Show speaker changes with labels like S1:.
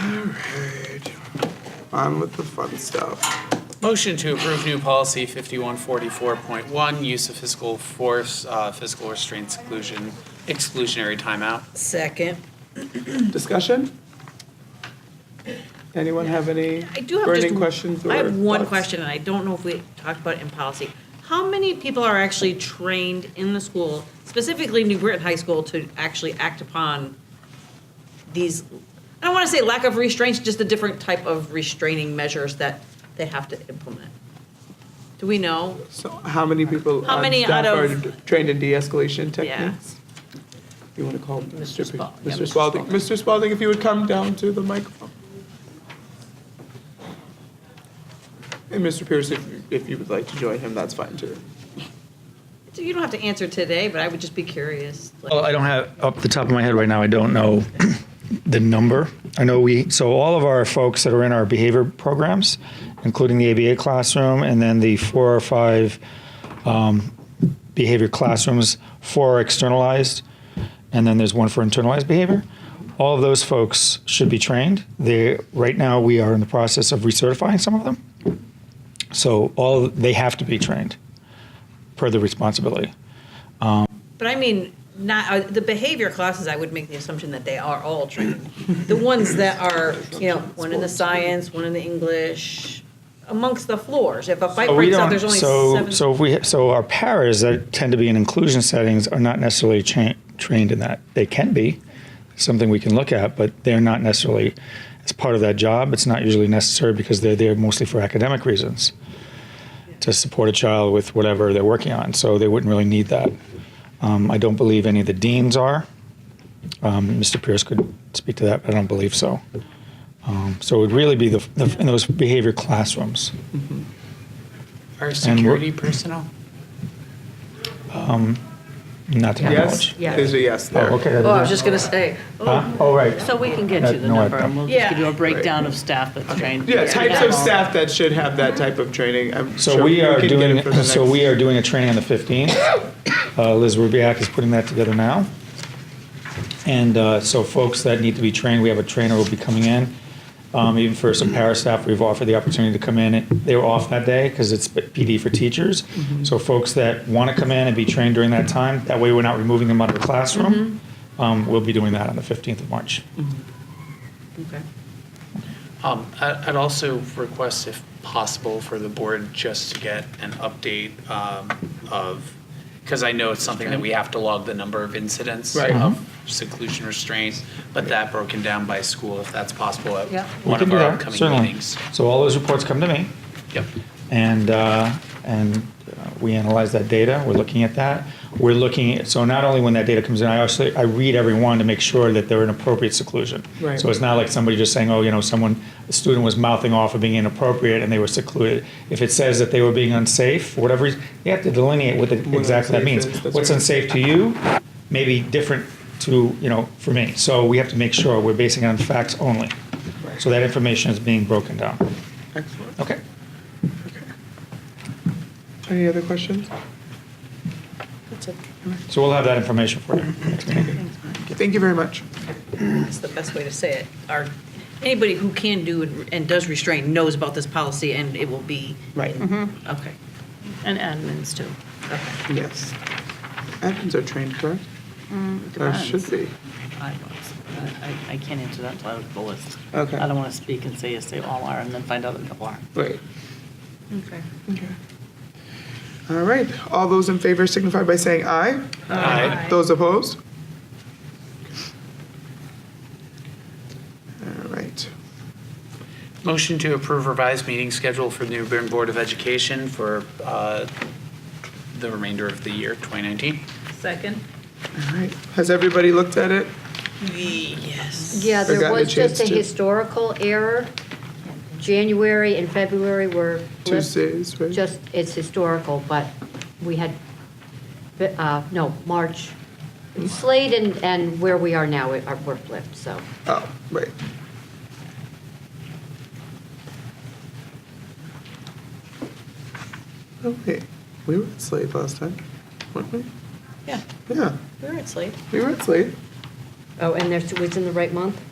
S1: Alright. On with the fun stuff.
S2: Motion to approve new policy 5144.1, use of physical force, uh, physical restraint seclusion, exclusionary timeout.
S3: Second.
S1: Discussion? Anyone have any
S4: I do have
S1: burning
S4: just-
S1: questions or
S4: I have one
S1: thoughts?
S4: question, and I don't know if we talked about it in policy. How many people are actually trained in the school, specifically New Britain High School, to actually act upon these? I don't want to say lack of restraints, just the different type of restraining measures that they have to implement. Do we know?
S1: So how many people
S4: How
S1: on
S4: many
S1: staff
S4: out
S1: are
S4: of-
S1: d- trained in de-escalation
S4: Yeah.
S1: techniques? You want to call Mr. P-
S4: Spalding. Yeah,
S1: Mr.
S4: Mr.
S1: Spalding. Mr. Spalding, if you would come down to the microphone. And Mr. Pierce, if, you- if you would like to join him, that's fine too.
S4: You don't have to answer today, but I would just be curious. like-
S5: Well, I don't have, up the top of my head right now, I don't know the number. I know we, so all of our folks that are in our behavior programs, including the ABA classroom, and then the four or five um, behavior classrooms, four are externalized, and then there's one for internalized behavior. All of those folks should be trained. They, right now, we are in the process of recertifying some of them. So all, they have to be trained per the responsibility.
S4: But I mean, not, uh, the behavior classes, I would make the assumption that they are all trained. The ones that are, you know, one in the science, one in the English, amongst the floors. If a fight
S5: But Oh, we
S4: breaks out,
S5: don't-
S4: there's only
S5: so,
S4: seven.
S5: So if we so our paras that tend to be in inclusion settings are not necessarily cha- trained in that. They can be something we can look at, but they're not necessarily as part of that job. It's not usually necessary because they're there mostly for academic reasons to support a child with whatever they're working on. So they wouldn't really need that. Um, I don't believe any of the deans are. Um, Mr. Pierce could speak to that, but I don't believe so. Um, so it would really be the, the in those behavior classrooms.
S2: Our security personnel?
S5: Not to my
S1: Yes?
S5: knowledge.
S6: Yeah.
S1: There's a yes there.
S5: Oh, okay.
S6: Oh, I was just gonna say,
S5: Huh? Oh, right.
S6: so we can get you the
S5: No, I-
S6: number, and we'll just give you
S4: Yeah.
S6: a breakdown of staff that's trained.
S1: Yeah, types of staff that should have that type of training. I'm
S5: So
S1: sure
S5: we are
S1: can get
S5: doing,
S1: it for the
S5: so
S1: next-
S5: we are doing a training on the 15th. Uh, Liz Rubiak is putting that together now. And uh, so folks that need to be trained, we have a trainer who will be coming in. Um, Even for some para staff, we've offered the opportunity to come in. They were off that day because it's PD for teachers. So folks that want to come in and be trained during that time, that way we're not removing them out of the classroom. Um, We'll be doing that on the 15th of March.
S4: Okay.
S2: Um, I- I'd also request, if possible, for the board just to get an update um, of, because I know it's something that we have to log the number of incidents
S1: Right.
S2: of seclusion restraints, but that broken down by school, if that's possible, at
S6: Yeah.
S5: We
S2: one
S5: can
S2: of
S5: do
S2: our
S5: that,
S2: upcoming
S5: certainly.
S2: meetings.
S5: So all those reports come to me.
S2: Yep.
S5: and uh, and uh, we analyze that data. We're looking at that. We're looking at so not only when that data comes in, I also I read every one to make sure that they're in appropriate seclusion.
S1: Right.
S5: So it's not like somebody just saying, oh, you know, someone a student was mouthing off or being inappropriate and they were secluded. If it says that they were being unsafe, for whatever reason, you have to delineate what the,
S1: What
S5: exactly that
S1: unsafe
S5: means.
S1: is, that's
S5: What's
S1: right.
S5: unsafe to you, maybe different to you know for me. So we have to make sure we're basing it on facts only.
S1: Right.
S5: So that information is being broken down.
S1: Excellent.
S5: Okay.
S1: Any other questions?
S5: So we'll have that information for you.
S1: Thank you very much.
S4: That's the best way to say it. Our, anybody who can do and- and does restrain knows about this policy, and it will be,
S1: Right.
S4: okay,
S6: And admins too.
S4: okay.
S1: Yes. Admins are trained, correct? Or
S6: depends.
S1: should be.
S6: I was, I, I can't answer that till I have the list.
S1: Okay.
S6: I don't wanna speak and say, yes, they all are, and then find out that a couple aren't.
S1: Right.
S4: Okay.
S1: Okay. All right. All those in favor signify by saying aye. Aye. Those opposed? All right.
S2: Motion to approve revised meeting schedule for the New Bern Board of Education for uh, the remainder of the year, 2019.
S4: Second?
S1: All right. Has everybody looked at it?
S4: Yes.
S7: Yeah,
S1: Or
S7: there
S1: gotten a
S7: was just a
S1: chance to-
S7: historical error. January and February were flipped.
S1: Tuesdays, right?
S7: Just, it's historical, but we had, uh, no, March. Slade and, and where we are now are were flipped, so.
S1: Oh, right. Oh, wait. We were at Slade last time, weren't we?
S4: Yeah,
S1: Yeah,
S4: we were at Slade.
S1: we were at Slade.
S7: Oh, and there's, it was in the right month?